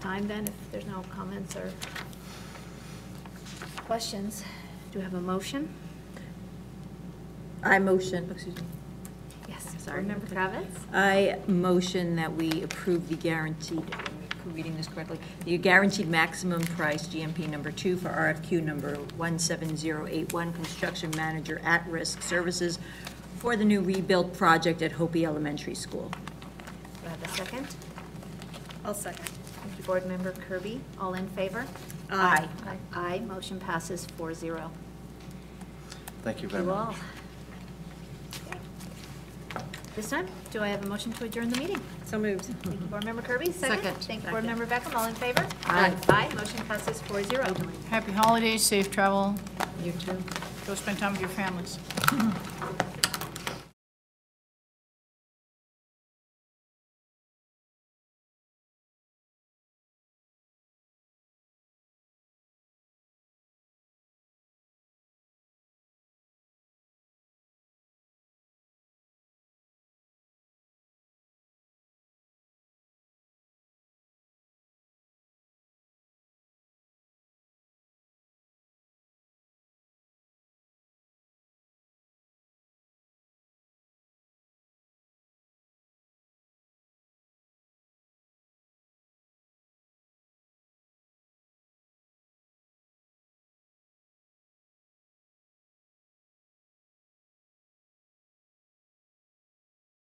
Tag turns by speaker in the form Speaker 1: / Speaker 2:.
Speaker 1: time then, if there's no comments or questions. Do we have a motion?
Speaker 2: I motion, excuse me,
Speaker 1: Yes, sorry, Member Kravitz?
Speaker 2: I motion that we approve the guaranteed, am I reading this correctly, the guaranteed maximum price GMP number two for RFQ number 17081, construction manager at-risk services for the new rebuild project at Hopi Elementary School.
Speaker 1: Do I have a second?
Speaker 3: I'll second.
Speaker 1: Thank you, Board Member Kirby. All in favor?
Speaker 2: Aye.
Speaker 1: Aye. Aye, motion passes four zero.
Speaker 4: Thank you very
Speaker 1: You
Speaker 4: much.
Speaker 1: all. This time, do I have a motion to adjourn the meeting?
Speaker 3: So moved.
Speaker 1: Thank you, Board Member Kirby, second.
Speaker 3: Second.
Speaker 1: Thank you, Board Member Beckham, all in favor?
Speaker 3: Aye.
Speaker 1: Aye, motion passes four zero.
Speaker 5: Happy holidays, safe travel,
Speaker 3: You too.
Speaker 5: go spend time with your families.